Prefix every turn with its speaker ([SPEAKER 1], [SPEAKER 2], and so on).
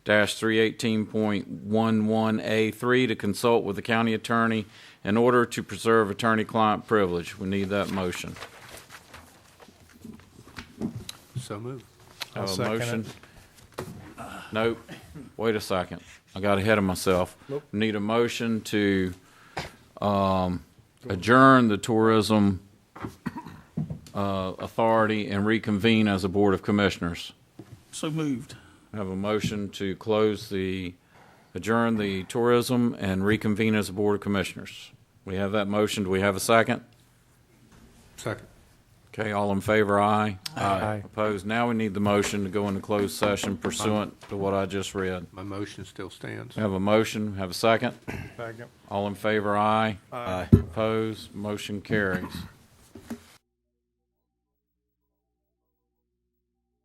[SPEAKER 1] dash three eighteen point one one A three to consult with the county attorney in order to preserve attorney-client privilege. We need that motion.
[SPEAKER 2] So moved.
[SPEAKER 1] Have a
[SPEAKER 3] second it.
[SPEAKER 1] motion? Nope. Wait a second. I got ahead of myself. Need a motion to um, adjourn the Tourism uh, Authority and reconvene as a Board of Commissioners.
[SPEAKER 4] So moved.
[SPEAKER 1] Have a motion to close the, adjourn the tourism and reconvene as a Board of Commissioners. We have that motion. Do we have a second?
[SPEAKER 2] Second.
[SPEAKER 1] Okay, all in favor, aye.
[SPEAKER 3] Aye.
[SPEAKER 1] Opposed? Now we need the motion to go into closed session pursuant to what I just read.
[SPEAKER 2] My motion still stands.
[SPEAKER 1] Have a motion, have a second.
[SPEAKER 3] Second.
[SPEAKER 1] All in favor, aye. Aye. Opposed? Motion carries.